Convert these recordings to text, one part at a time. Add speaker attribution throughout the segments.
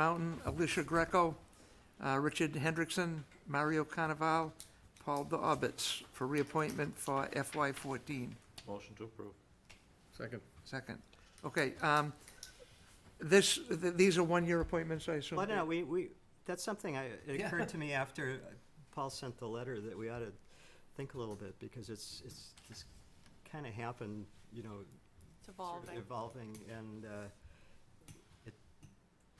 Speaker 1: Mountain, Alicia Greco, uh, Richard Hendrickson, Mario Carnaval, Paul Dorbitz for reappointment for FY fourteen.
Speaker 2: Motion to approve.
Speaker 3: Second.
Speaker 1: Second. Okay, um, this, th- these are one-year appointments, I assume?
Speaker 4: Well, no, we, we, that's something I, it
Speaker 1: Yeah.
Speaker 4: occurred to me after Paul sent the letter that we ought to think a little bit, because it's, it's, it's kind of happened, you know,
Speaker 5: It's
Speaker 4: sort of
Speaker 5: evolving.
Speaker 4: evolving, and, uh, it,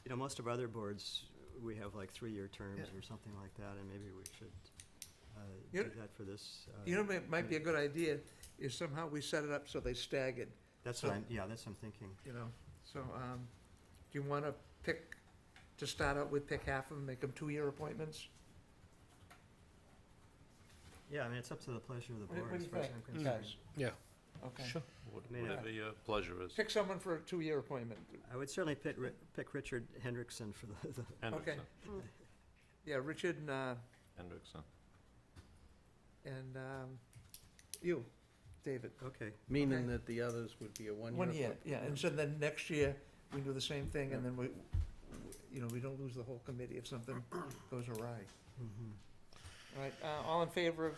Speaker 4: you know, most of our other boards, we have like three-year terms
Speaker 1: Yeah.
Speaker 4: or something like that, and maybe we should, uh,
Speaker 1: You
Speaker 4: do
Speaker 1: know-
Speaker 4: that for this. uh,
Speaker 1: You know, it might be a good idea is somehow we set it up so they staggered,
Speaker 4: That's
Speaker 1: so-
Speaker 4: what I'm, yeah, that's what I'm thinking.
Speaker 1: you know? So, um, do you want to pick, to start out with, pick half of them, make them two-year appointments?
Speaker 4: Yeah, I mean, it's up to the pleasure of the
Speaker 1: What-
Speaker 4: board,
Speaker 1: what do
Speaker 4: as
Speaker 1: you
Speaker 4: far as
Speaker 1: think,
Speaker 4: I'm concerned.
Speaker 1: guys?
Speaker 3: Yeah.
Speaker 1: Okay.
Speaker 2: What-
Speaker 4: May I-
Speaker 2: Whatever your pleasure is.
Speaker 1: Pick someone for a two-year appointment.
Speaker 4: I would certainly pick, Ri- pick Richard Hendrickson for the, the
Speaker 2: Hendrickson,
Speaker 1: Yeah, Richard and, uh,
Speaker 2: Hendrickson.
Speaker 1: and, um, you, David.
Speaker 4: Okay,
Speaker 1: Okay.
Speaker 3: Meaning that the others would be a one-year.
Speaker 1: One year,
Speaker 3: appointment.
Speaker 1: yeah, and so then next year, we do the same thing, and then we, you know, we don't lose the whole committee if something goes awry.
Speaker 4: mhm.
Speaker 1: All right, uh, all in favor of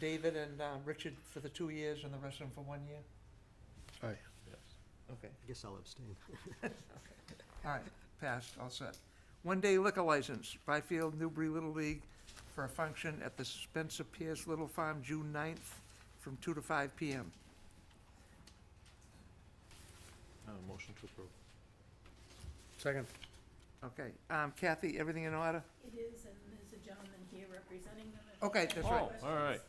Speaker 1: David and, um, Richard for the two years and the rest of them for one year?
Speaker 3: Aye.
Speaker 2: yes.
Speaker 1: Okay,
Speaker 4: I guess I'll abstain.
Speaker 1: all right, passed, all set. One-day liquor license, Byfield Newbury Little League for a function at the Spencer Pierce Little Farm, June 9th, from two to five PM.
Speaker 2: Uh, motion to approve.
Speaker 3: Second.
Speaker 1: Okay, um, Kathy, everything in order?
Speaker 5: It is, and there's a gentleman here representing them. if
Speaker 1: Okay,
Speaker 5: there's
Speaker 1: that's
Speaker 5: any
Speaker 1: right.
Speaker 2: Oh, all right.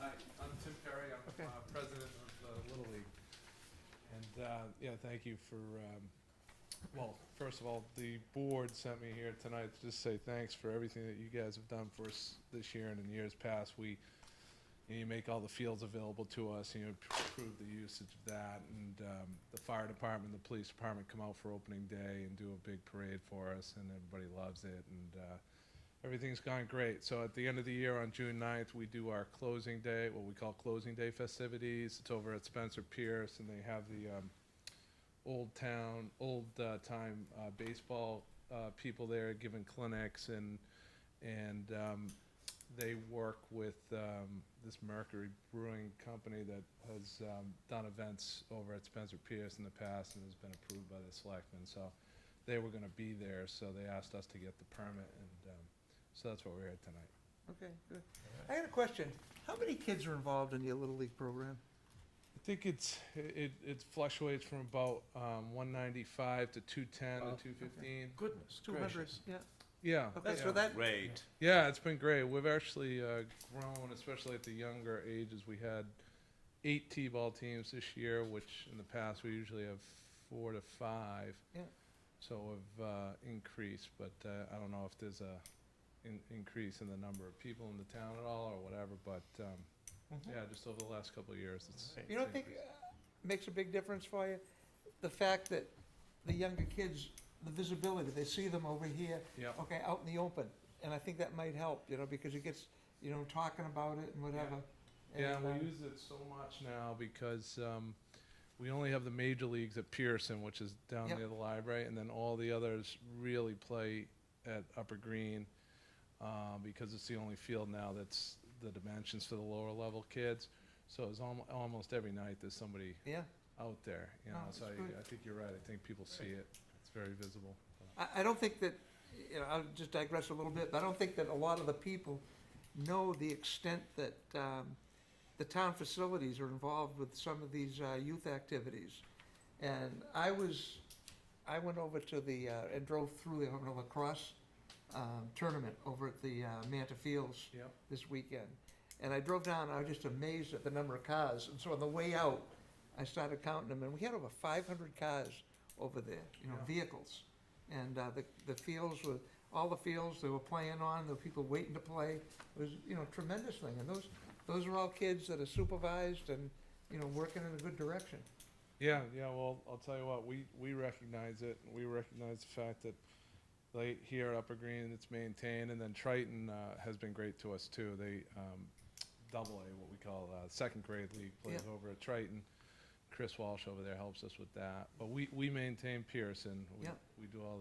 Speaker 6: Hi, I'm Tim Perry, I'm
Speaker 1: Okay.
Speaker 6: uh, president of the Little League. And, uh, yeah, thank you for, um, well, first of all, the board sent me here tonight to just say thanks for everything that you guys have done for us this year and in years past. We, you know, you make all the fields available to us, and you improve the usage of that. And um, the fire department, the police department come out for opening day and do a big parade for us, and everybody loves it. And uh, everything's gone great. So at the end of the year on June 9th, we do our closing day, what we call closing day festivities. It's over at Spencer Pierce, and they have the um, old town, old uh, time uh, baseball uh, people there giving clinics, and and um, they work with um, this Mercury Brewing Company that has um, done events over at Spencer Pierce in the past and has been approved by the selectmen. So they were going to be there, so they asked us to get the permit, and um, so that's what we're here tonight.
Speaker 1: Okay, good. I got a question. How many kids are involved in your Little League program?
Speaker 6: I think it's it, it fluctuates from about um, 195 to 210
Speaker 3: Wow.
Speaker 6: to 215.
Speaker 2: Goodness
Speaker 1: Two hundred, yeah.
Speaker 6: Yeah.
Speaker 1: Oh, Okay,
Speaker 6: yeah.
Speaker 1: so that,
Speaker 2: Great.
Speaker 6: Yeah, it's been great. We've actually uh, grown, especially at the younger ages. We had eight T-ball teams this year, which in the past we usually have four to five.
Speaker 1: Yeah.
Speaker 6: So we've uh, increased, but uh, I don't know if there's a in- increase in the number of people in the town at all or whatever. But um, yeah, just over the last couple of years, it's.
Speaker 1: Mm-hmm. you don't think uh, makes a big difference for you? The fact that the younger kids, the visibility, they see them over here,
Speaker 6: Yeah. oh,
Speaker 1: okay, out in the open. And I think that might help, you know, because it gets, you know, talking about it and whatever.
Speaker 6: Yeah,
Speaker 1: And,
Speaker 6: we
Speaker 1: um,
Speaker 6: use it so much now because um, we only have the major leagues at Pearson, which is down
Speaker 1: Yep.
Speaker 6: near the library, and then all the others really play at Upper Green uh, because it's the only field now that's the dimensions for the lower level kids. So it's almo- almost every night there's somebody
Speaker 1: Yeah,
Speaker 6: out there. You know,
Speaker 1: No,
Speaker 6: so
Speaker 1: it's good.
Speaker 6: I, I think you're right. I think people see it. It's very visible.
Speaker 1: I, I don't think that, you know, I'll just digress a little bit, but I don't think that a lot of the people know the extent that, um, the town facilities are involved with some of these, uh, youth activities. And I was, I went over to the, uh, and drove through the Ormond lacrosse, um, tournament over at the, uh, Manta Fields
Speaker 6: Yep.
Speaker 1: this weekend. And I drove down, and I was just amazed at the number of cars. And so on the way out, I started counting them, and we had over five hundred cars over there, you know,
Speaker 6: Yeah.
Speaker 1: vehicles. And, uh, the, the fields were, all the fields they were playing on, there were people waiting to play. It was, you know, tremendous thing. And those, those are all kids that are supervised and, you know, working in a good direction.
Speaker 6: Yeah, yeah. Well, I'll tell you what. We we recognize it. We recognize the fact that like here at Upper Green, it's maintained, and then Triton uh, has been great to us too. They um, double A, what we call uh, second grade league, plays over at Triton. Chris Walsh over there helps us with that. But we, we maintain Pearson. We-
Speaker 1: Yeah.
Speaker 6: We do all